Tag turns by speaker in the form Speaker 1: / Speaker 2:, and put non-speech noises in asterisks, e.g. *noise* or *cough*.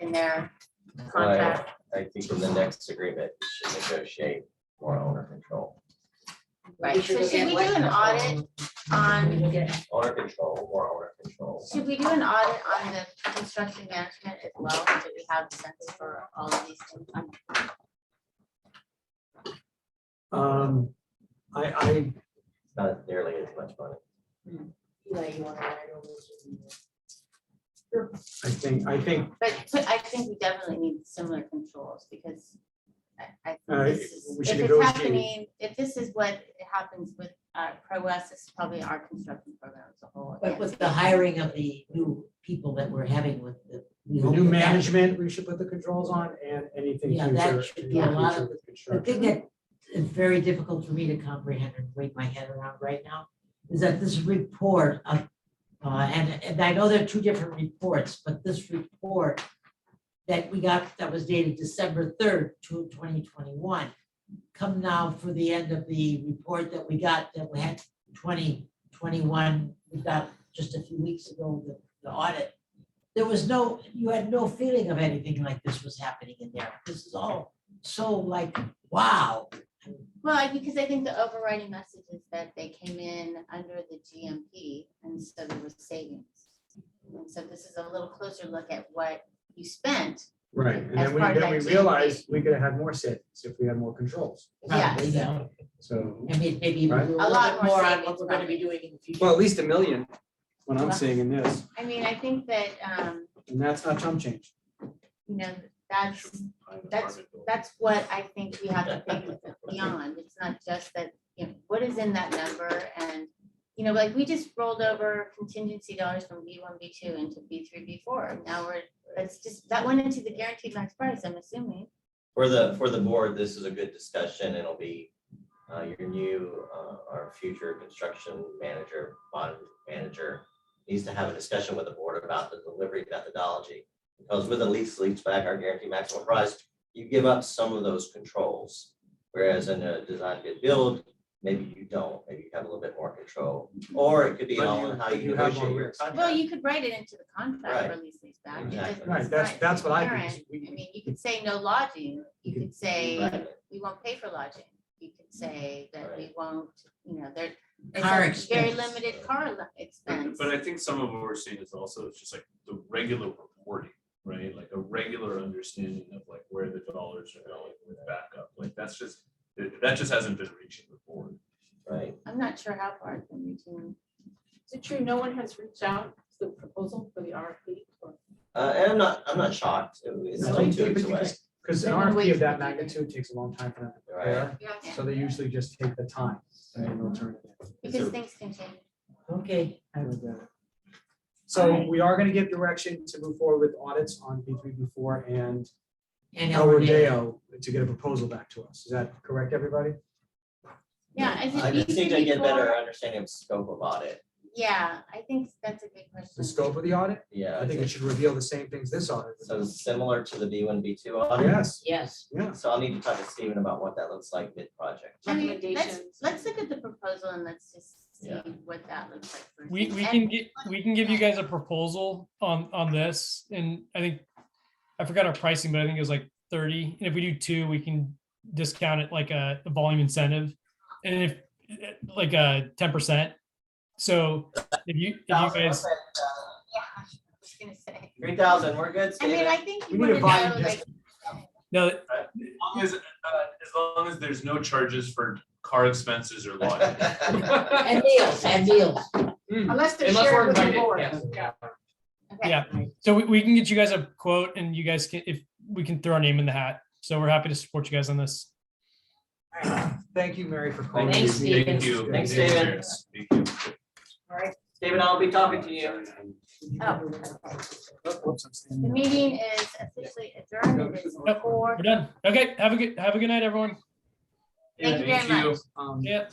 Speaker 1: in their contract.
Speaker 2: I think in the next agreement, we should negotiate more owner control,
Speaker 1: Right, um, so should we do an audit on,
Speaker 2: owner control, more owner control.
Speaker 1: should we do an audit on the construction management as well, so that we have a sense for all of these things? Um,
Speaker 3: Um, I, I,
Speaker 2: It's not nearly as much money.
Speaker 1: Eli, you wanna add it over?
Speaker 3: I think, I think,
Speaker 1: But but I think we definitely need similar controls, because I, I,
Speaker 3: uh,
Speaker 1: this is,
Speaker 3: we
Speaker 1: if
Speaker 3: should
Speaker 1: it's
Speaker 3: negotiate.
Speaker 1: happening, if this is what happens with, uh, Pro West, it's probably our construction program as a whole.
Speaker 4: But with the hiring of the new people that we're having with the. we
Speaker 3: The
Speaker 4: hope
Speaker 3: new
Speaker 4: that-
Speaker 3: management, we should put the controls on and anything
Speaker 4: Yeah,
Speaker 3: future.
Speaker 4: that should be
Speaker 3: anything
Speaker 4: a lot
Speaker 3: future
Speaker 4: of-
Speaker 3: with
Speaker 4: The thing
Speaker 3: construction.
Speaker 4: that is very difficult for me to comprehend and wrap my head around right now is that this report of, uh, and, and I know there are two different reports, but this report that we got, that was dated December third, two, 2021, come now for the end of the report that we got, that we had twenty twenty-one, we got just a few weeks ago, the, the audit. There was no, you had no feeling of anything like this was happening in there. This is all so like wow.
Speaker 1: Well, I- because I think the overriding message is that they came in under the GMP and so there was savings. And so this is a little closer look at what you spent.
Speaker 3: Right, and
Speaker 1: as
Speaker 3: then we,
Speaker 1: part of
Speaker 3: then we
Speaker 1: that GMP.
Speaker 3: realized we could have had more savings if we had more controls,
Speaker 1: Yeah,
Speaker 4: probably, you know,
Speaker 3: so.
Speaker 4: I mean, maybe a
Speaker 3: Right.
Speaker 4: little
Speaker 1: lot
Speaker 4: bit
Speaker 1: more
Speaker 4: more on
Speaker 1: savings,
Speaker 4: what we're gonna
Speaker 1: probably.
Speaker 4: be doing in the future.
Speaker 3: Well, at least a million, what I'm seeing in this,
Speaker 1: I mean, I think that, um,
Speaker 3: and that's not chump change.
Speaker 1: you know, that's, that's, that's what I think we have to think beyond. It's not just that, you know, what is in that number and, you know, like we just rolled over contingency dollars from B one, B two into B three, B four. Now we're, that's just, that went into the guaranteed max price, I'm assuming.
Speaker 2: For the, for the board, this is a good discussion. It'll be uh, your new, uh, our future construction manager, bond manager needs to have a discussion with the board about the delivery methodology. Because with a lease, lease back, our guaranteed maximum price, you give up some of those controls. Whereas in a design bid build, maybe you don't, maybe you have a little bit more control. Or it could be
Speaker 3: But
Speaker 2: all
Speaker 3: you-
Speaker 2: in how
Speaker 3: but
Speaker 2: you
Speaker 3: you have more
Speaker 2: negotiate your
Speaker 3: risk.
Speaker 2: contract.
Speaker 1: Well, you could write it into the contract,
Speaker 2: Right.
Speaker 1: release these back. It
Speaker 2: Exactly.
Speaker 1: doesn't-
Speaker 3: Right,
Speaker 1: it's
Speaker 3: that's,
Speaker 1: not
Speaker 3: that's what I think.
Speaker 1: inherent. I mean, you could say no lodging, you could say,
Speaker 2: Right.
Speaker 1: we won't pay for lodging, you could say that we won't, you know, there. it's
Speaker 4: Car
Speaker 1: a Very
Speaker 4: expense.
Speaker 1: limited car li- expense.
Speaker 5: But I think some of what we're seeing is also just like the regular reporting, right? Like a regular understanding of like where the dollars are going with backup. Like that's just, that that just hasn't been reaching the board.
Speaker 2: Right,
Speaker 1: I'm not sure how far it's been reaching.
Speaker 6: Is it true, no one has reached out to the proposal for the RFP? or-
Speaker 2: uh, and I'm not, I'm not shocked, it's
Speaker 3: No,
Speaker 2: only
Speaker 3: but
Speaker 2: two weeks away.
Speaker 3: because- Because an
Speaker 6: They've been
Speaker 3: RFP
Speaker 6: waiting
Speaker 3: of that
Speaker 6: for people.
Speaker 3: magnitude takes a long time for them to
Speaker 2: Right.
Speaker 3: prepare,
Speaker 1: Yeah.
Speaker 3: so they usually just take the time and they'll turn it in.
Speaker 1: Because things can change.
Speaker 4: Okay, I
Speaker 3: And,
Speaker 4: would-
Speaker 3: uh, So
Speaker 1: Alright.
Speaker 3: we are gonna give direction to move forward with audits on B three, B four and
Speaker 4: and El
Speaker 3: El
Speaker 4: Rodeo.
Speaker 3: Rodeo to get a proposal back to us. Is that correct, everybody?
Speaker 1: Yeah, I
Speaker 2: I
Speaker 1: think
Speaker 2: just
Speaker 1: B
Speaker 2: need to
Speaker 1: three, B
Speaker 2: get better
Speaker 1: four,
Speaker 2: understanding of scope of audit,
Speaker 1: yeah, I think that's a good
Speaker 3: The
Speaker 1: question.
Speaker 3: scope of the audit?
Speaker 2: yeah.
Speaker 3: I think it should reveal the same things this audit.
Speaker 2: So similar to the B one, B two audit,
Speaker 3: Yes,
Speaker 4: Yes,
Speaker 3: yeah.
Speaker 2: so I'll need to talk to Steven about what that looks like mid-project.
Speaker 1: I mean, let's,
Speaker 6: Recommendations.
Speaker 1: let's look at the proposal and let's just see
Speaker 2: Yeah.
Speaker 1: what that looks like. first.
Speaker 7: We, we
Speaker 1: And-
Speaker 7: can get, we can give you guys a proposal on, on this, and I think, I forgot our pricing, but I think it was like thirty, and if we do two, we can discount it like a a volume incentive, and if, eh, like a ten percent. So if you, if you guys,
Speaker 1: Yeah, I was gonna say.
Speaker 2: Three thousand, we're good,
Speaker 1: I mean,
Speaker 2: Steven?
Speaker 1: I think
Speaker 3: We
Speaker 1: you
Speaker 3: need
Speaker 1: want
Speaker 3: a
Speaker 1: to know,
Speaker 3: volume
Speaker 1: like,
Speaker 7: no,
Speaker 5: As long as, uh, as long as there's no charges for car expenses or
Speaker 2: *laughs*
Speaker 5: lodging.
Speaker 1: *laughs*
Speaker 4: and meals, and meals.
Speaker 6: Unless they're
Speaker 3: Hmm. Unless we're
Speaker 6: shared with the
Speaker 3: invited,
Speaker 6: board.
Speaker 3: yes.
Speaker 6: Yeah.
Speaker 1: okay.
Speaker 7: Yeah. So we, we can get you guys a quote and you guys can, if we can throw our name in the hat. So we're happy to support you guys on this.
Speaker 3: Thank you, Mary, for calling.
Speaker 4: Thanks,
Speaker 3: this meeting.
Speaker 5: Thank you.
Speaker 2: Thanks,
Speaker 5: Thank you.
Speaker 2: David.
Speaker 5: Thank you.
Speaker 2: Steven, I'll be talking to you.
Speaker 3: Whoops, I'm standing
Speaker 1: The
Speaker 3: up.
Speaker 1: meeting is officially adjourned. It is
Speaker 7: Nope,
Speaker 1: four.
Speaker 7: We're done. Okay. Have a good, have a good night, everyone.
Speaker 1: Thank you very
Speaker 5: Thank you.
Speaker 1: much.
Speaker 3: Um,
Speaker 7: Yeah.